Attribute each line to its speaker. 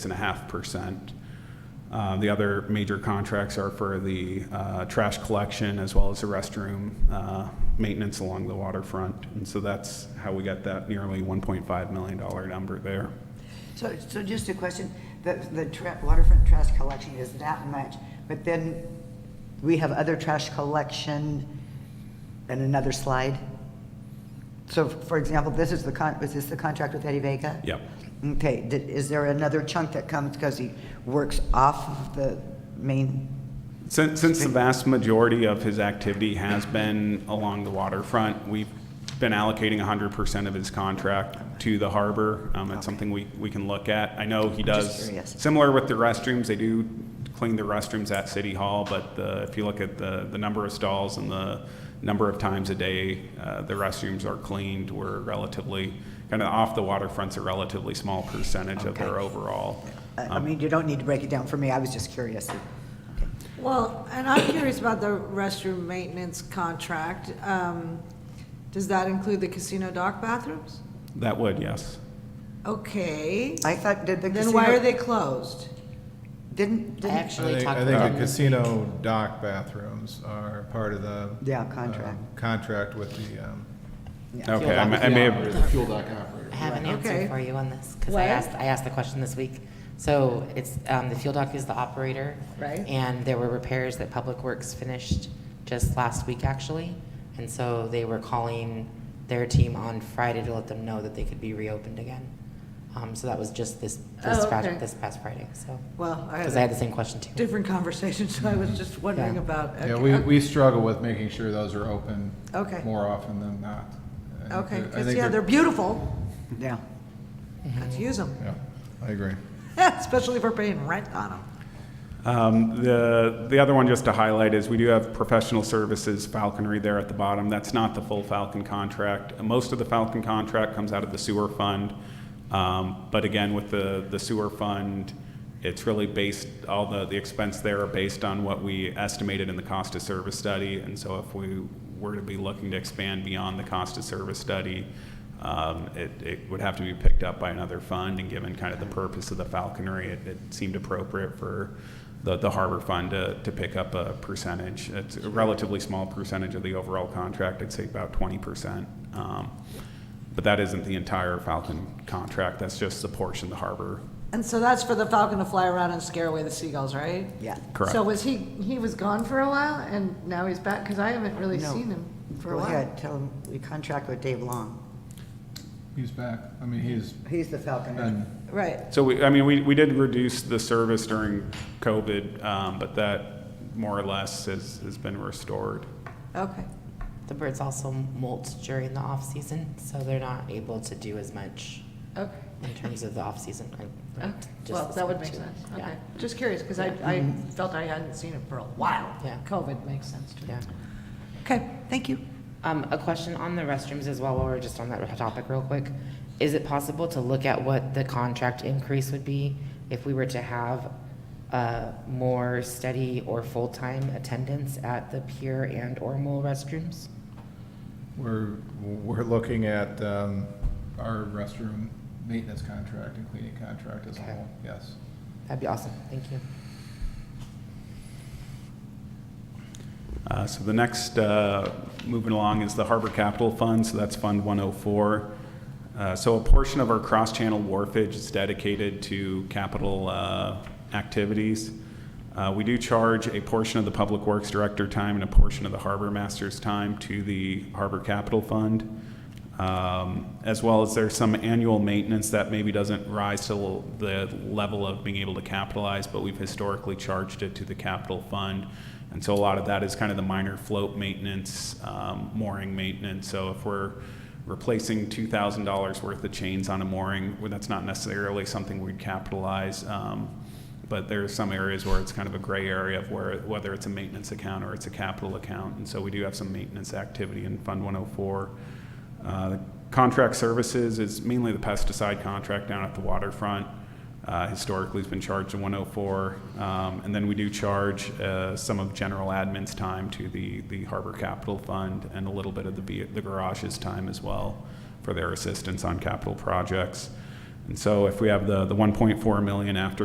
Speaker 1: and a half percent. Uh, The other major contracts are for the uh, trash collection as well as the restroom uh, maintenance along the waterfront. And so that's how we got that nearly $1.5 million number there.
Speaker 2: So, so just a question, the, the tra- waterfront trash collection is that much, but then we have other trash collection and another slide? So for example, this is the con, was this the contract with Eddie Vega?
Speaker 1: Yep.
Speaker 2: Okay, did, is there another chunk that comes because he works off of the main?
Speaker 1: Since, since the vast majority of his activity has been along the waterfront, we've been allocating 100% of his contract to the harbor. Um, It's something we, we can look at. I know he
Speaker 2: just
Speaker 1: does,
Speaker 2: curious.
Speaker 1: similar with the restrooms, they do clean the restrooms at City Hall, but the, if you look at the, the number of stalls and the number of times a day uh, the restrooms are cleaned, we're relatively, kind of off the waterfront's a relatively small percentage of their
Speaker 2: Okay.
Speaker 1: overall.
Speaker 2: I, I mean, you don't need to break it down for me, I was just curious.
Speaker 3: Well, and I'm curious about the restroom maintenance contract. Um, Does that include the casino dock bathrooms?
Speaker 1: That would, yes.
Speaker 3: Okay,
Speaker 2: I thought, did the casino?
Speaker 3: then why are they closed?
Speaker 2: Didn't,
Speaker 4: I
Speaker 2: didn't,
Speaker 4: actually
Speaker 5: I think-
Speaker 4: talked
Speaker 5: I
Speaker 4: about
Speaker 5: think
Speaker 4: that.
Speaker 5: the casino dock bathrooms are part of the.
Speaker 2: Yeah, contract.
Speaker 5: um, Contract with the, um,
Speaker 1: Okay, I may- I may have,
Speaker 6: The fuel dock operator.
Speaker 4: I have an answer
Speaker 3: Okay.
Speaker 4: for you on this, because I
Speaker 3: What?
Speaker 4: asked, I asked the question this week. So it's, um, the fuel dock is the operator.
Speaker 3: Right.
Speaker 4: And there were repairs that Public Works finished just last week, actually. And so they were calling their team on Friday to let them know that they could be reopened again. Um, so that was just this, this
Speaker 3: Oh,
Speaker 4: Friday,
Speaker 3: okay.
Speaker 4: this past Friday, so.
Speaker 3: Well, I
Speaker 4: Because I had
Speaker 3: had
Speaker 4: the
Speaker 3: a
Speaker 4: same question too.
Speaker 3: different conversation, so I was just wondering
Speaker 4: Yeah.
Speaker 3: about.
Speaker 5: yeah,
Speaker 3: okay,
Speaker 5: we,
Speaker 3: okay.
Speaker 5: we struggle with making sure those are open.
Speaker 3: Okay.
Speaker 5: More often than not. I think
Speaker 3: Okay,
Speaker 5: that- I
Speaker 3: because,
Speaker 5: think
Speaker 3: yeah, they're
Speaker 5: that-
Speaker 3: beautiful.
Speaker 2: yeah, Mm-hmm.
Speaker 3: Let's use them,
Speaker 5: Yeah, I agree.
Speaker 3: especially if we're paying rent on them.
Speaker 1: Um, The, the other one just to highlight is we do have professional services falconry there at the bottom. That's not the full Falcon contract. Most of the Falcon contract comes out of the sewer fund. Um, But again, with the, the sewer fund, it's really based, all the, the expense there are based on what we estimated in the cost of service study. And so if we were to be looking to expand beyond the cost of service study, um, It it would have to be picked up by another fund, and given kind of the purpose of the falconry, it it seemed appropriate for the the harbor fund to to pick up a percentage. It's a relatively small percentage of the overall contract, I'd say about 20%. Um, But that isn't the entire Falcon contract, that's just the portion the harbor.
Speaker 3: And so that's for the falcon to fly around and scare away the seagulls, right?
Speaker 2: yeah.
Speaker 1: Correct.
Speaker 3: So was he, he was gone for a while and now he's back? Because I haven't really
Speaker 2: No.
Speaker 3: seen him for a
Speaker 2: Go
Speaker 3: while.
Speaker 2: ahead, tell him, we contract with Dave Long.
Speaker 5: He's back. I mean, he's
Speaker 2: He's the Falconer.
Speaker 5: been,
Speaker 3: Right.
Speaker 1: So, we- I mean, we we did reduce the service during COVID, um, but that more or less has has been restored.
Speaker 3: Okay.
Speaker 4: The birds also molt during the off-season, so they're not able to do as much
Speaker 3: Okay.
Speaker 4: in terms of the off-season. I
Speaker 3: Okay.
Speaker 4: learned just
Speaker 3: Oh, Well,
Speaker 4: this
Speaker 3: that would
Speaker 4: week,
Speaker 3: make
Speaker 4: too.
Speaker 3: sense.
Speaker 4: Yeah. Mm-hmm.
Speaker 3: Okay. Just curious, because I, I felt I hadn't seen it for a while.
Speaker 4: Yeah.
Speaker 3: COVID makes sense to me.
Speaker 4: Yeah.
Speaker 3: Okay, thank you.
Speaker 4: Um, a question on the restrooms as well, while we're just on that topic real quick. Is it possible to look at what the contract increase would be if we were to have, uh, more steady or full-time attendance at the pier and or mole restrooms?
Speaker 5: we're, we're looking at, um, our restroom maintenance contract and cleaning contract as a
Speaker 4: Okay.
Speaker 5: whole, yes.
Speaker 4: That'd be awesome, thank you.
Speaker 1: Uh, So the next, uh, moving along, is the Harbor Capital Fund, so that's Fund 104. Uh, So a portion of our cross-channel wharfage is dedicated to capital uh, activities. Uh, We do charge a portion of the Public Works Director time and a portion of the Harbor Master's time to the Harbor Capital Fund um, as well as there's some annual maintenance that maybe doesn't rise to the level of being able to capitalize, but we've historically charged it to the capital fund. And so a lot of that is kind of the minor float maintenance, um, mooring maintenance. So if we're replacing two thousand dollars worth of chains on a mooring, well, that's not necessarily something we'd capitalize. Um, but there are some areas where it's kind of a gray area of where, whether it's a maintenance account or it's a capital account. And so we do have some maintenance activity in Fund 104. Uh, Contract services is mainly the pesticide contract down at the waterfront. Uh, Historically, has been charged to 104. Um, And then we do charge uh, some of general admin's time to the, the Harbor Capital Fund and a little bit of the, ve- the garage's time as well for their assistance on capital projects. And so if we have the, the 1.4 million after